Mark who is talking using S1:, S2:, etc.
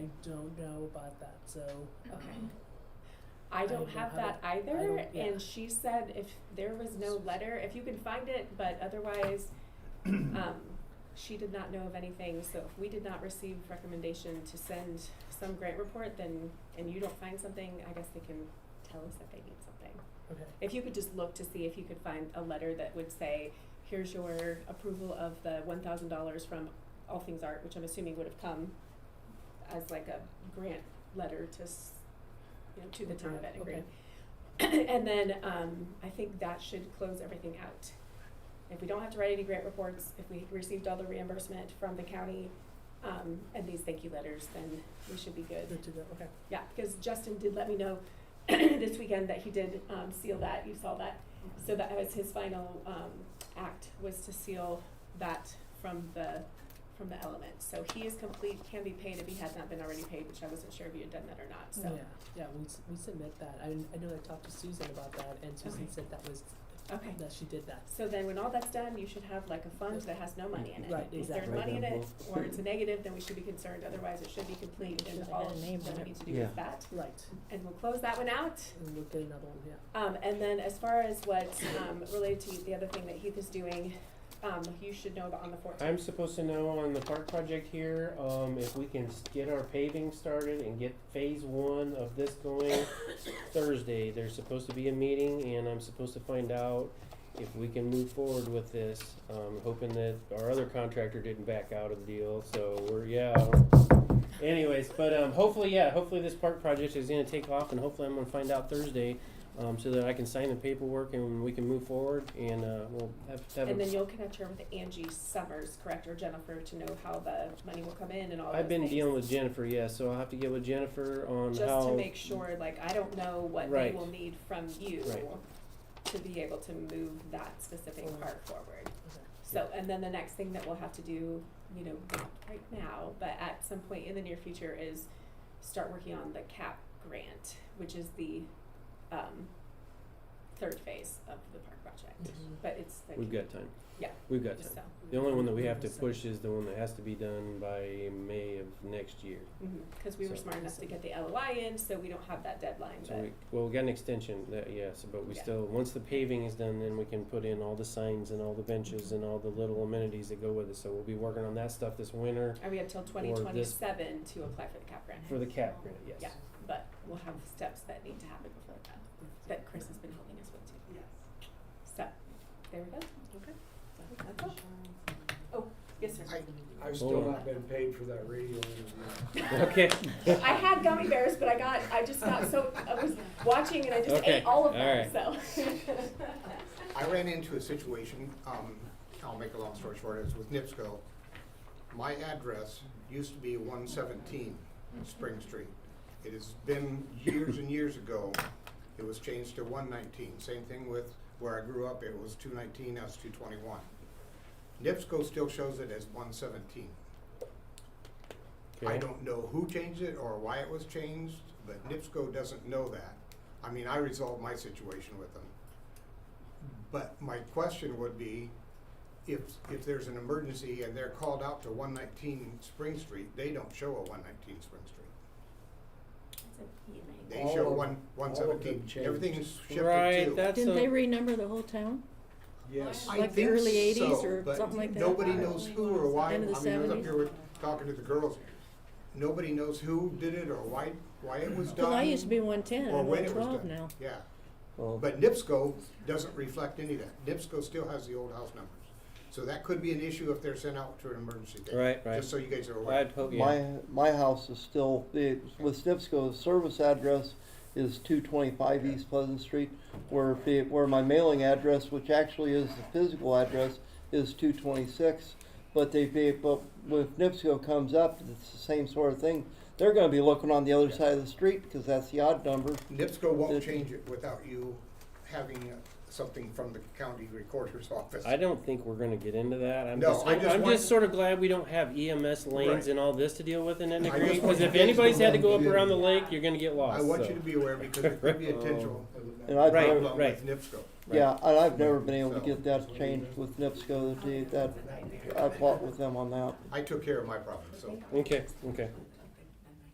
S1: don't know about that, so.
S2: Okay.
S1: um,
S2: Mm-hmm. I don't
S1: don't have
S2: have that either,
S1: don't- yeah.
S2: and she said if there was no letter, if you can find it, but otherwise, um, she did not know of anything, so if we did not receive recommendation to send some grant report, then, and you don't find something, I guess they can tell us that they need something.
S1: Okay,
S2: If you could just look to see if you could find a letter that would say, here's your approval of the one thousand dollars from All Things Art, which I'm assuming would have come as like a grant letter to, s- you know, to the town of
S1: Okay,
S2: Etna
S1: okay.
S2: Green. And then, um, I think that should close everything out. If we don't have to write any grant reports, if we received all the reimbursement from the county, um, and these thank you letters, then we should be good.
S1: good to go, okay.
S2: Yeah, because Justin did let me know this weekend that he did um, seal that. You saw that. So that was his final um, act was to seal that from the from the element. So he is complete, can be paid if he had not been already paid, which I wasn't sure if you had done that or not. So
S1: Yeah, yeah, we, s- we submit that. I, I know I talked to Susan about that and Susan
S2: Okay.
S1: said that was,
S2: okay.
S1: that she did that.
S2: So then when all that's done, you should have like a fund that has no money in it.
S1: Right,
S2: If there's
S1: exactly.
S2: money in it or it's a negative, then we should be concerned. Otherwise it should be complete and
S3: Should've
S2: all
S3: had a name
S2: that
S3: on
S2: we
S3: it.
S2: need to do
S4: Yeah.
S2: is that.
S1: Right,
S2: And we'll close that one out.
S1: and we'll get another one, yeah.
S2: Um, and then as far as what, um, related to the other thing that Heath is doing, um, you should know about on the
S4: I'm
S2: fourteenth.
S4: supposed to know on the park project here, um, if we can s- get our paving started and get phase one of this going Thursday. There's supposed to be a meeting and I'm supposed to find out if we can move forward with this. Um, hoping that our other contractor didn't back out of the deal, so we're, yeah. Anyways, but, um, hopefully, yeah, hopefully this park project is gonna take off and hopefully I'm gonna find out Thursday, um, so that I can sign the paperwork and we can move forward and, uh, we'll have, have a
S2: And then you'll connect her with Angie Summers, correct, or Jennifer, to know how the money will come in and all those
S4: I've been
S2: things.
S4: dealing with Jennifer, yeah, so I'll have to get with Jennifer on
S2: Just to
S4: how,
S2: make sure, like, I don't know what they
S4: Right.
S2: will need from you
S4: Right.
S2: to be able to move that specific
S1: Forward.
S2: part forward.
S1: Okay.
S2: So, and then the next thing that we'll have to do, you know, not right now, but at some point in the near future is start working on the CAP grant, which is the um third phase of the park project. But it's like,
S4: we've got time.
S2: Yeah.
S4: We've got
S2: just
S4: time.
S2: so,
S4: The only one that we have to
S1: So-
S4: push is the one that has to be done by May of next year.
S2: mhm, cause we were
S4: So-
S2: smart enough to get the LOI in, so we don't have that deadline,
S4: So
S2: but,
S4: we, well, we got an extension, that, yes, but we
S2: Yeah.
S4: still, once the paving is done, then we can put in all the signs and all the benches and all the little amenities that go with it. So we'll be working on that stuff this winter
S2: and we have till twenty twenty-seven to apply for the CAP grant,
S4: for the cap grant, yes.
S2: Yeah. but we'll have steps that need to happen before that, that Chris has been helping us with too. Yes. So, there we go. Okay. That's all. Oh, yes, sir.
S5: I've
S4: Hold
S5: still
S4: on.
S5: not been paid for that radio interview.
S4: Okay.
S2: I had gummy bears, but I got, I just got so, I was watching and I just
S4: Okay,
S2: ate all of
S4: all
S2: them,
S4: right.
S2: so.
S6: I ran into a situation, um, I'll make a long story short, it's with NIPSCO. My address used to be one seventeen Spring Street. It has been years and years ago, it was changed to one nineteen. Same thing with where I grew up, it was two nineteen, now it's two twenty-one. NIPSCO still shows it as one seventeen. I
S4: Okay.
S6: don't know who changed it or why it was changed, but NIPSCO doesn't know that. I mean, I resolved my situation with them. But my question would be, if, if there's an emergency and they're called out to one nineteen Spring Street, they don't show a one nineteen Spring Street. They
S5: All
S6: show
S5: of-
S6: one,
S5: all
S6: one
S5: of
S6: seventeen,
S5: them changed.
S6: everything's shifted to.
S4: Right, that's a.
S3: Didn't they renumber the whole town?
S5: Yes.
S6: I
S3: Like the
S6: think
S3: early 80s
S6: so,
S3: or
S6: but
S3: something like that?
S6: Nobody knows who or why, I
S3: End
S6: mean,
S3: of
S6: I
S3: the
S6: was up
S3: 70s?
S6: here with, talking to the girls, nobody knows who did it or why, why it was done.
S3: Well, I used to be one ten,
S6: or when
S3: I'm one
S6: it was
S3: twelve
S6: done.
S3: now.
S6: Yeah,
S4: Well,
S6: but NIPSCO doesn't reflect any of that. NIPSCO still has the old house numbers. So that could be an issue if they're sent out to an emergency day.
S4: Right, right.
S6: Just so you guys are aware.
S4: I'd hope, yeah,
S7: My, my house is still, the, with NIPSCO's service address is two twenty-five East Pleasant Street, where the, where my mailing address, which actually is the physical address, is two twenty-six. But they, they, but if NIPSCO comes up, it's the same sort of thing, they're gonna be looking on the other side of the street, because that's the odd number.
S6: NIPSCO won't change it without you having uh, something from the county recorder's office.
S4: I don't think we're gonna get into that. I'm
S6: No,
S4: just,
S6: I
S4: I'm,
S6: just
S4: I'm
S6: want-
S4: just sort of glad we don't have EMS lanes
S6: Right.
S4: and all this to deal with in Etna
S6: I just
S4: Green,
S6: want
S4: because
S6: you
S4: if
S6: guys to
S4: anybody's had to
S5: know
S4: go up
S5: that-
S4: around the lake, you're gonna get lost,
S6: I want
S4: so. Oh.
S6: you to be aware because there could be a potential
S7: And I've,
S4: Right,
S6: problem
S4: right.
S6: with NIPSCO.
S7: yeah, and I've never been able to
S6: So-
S7: get that changed with NIPSCO, that, I fought with them on that.
S6: I took care of my problem, so.
S4: Okay, okay.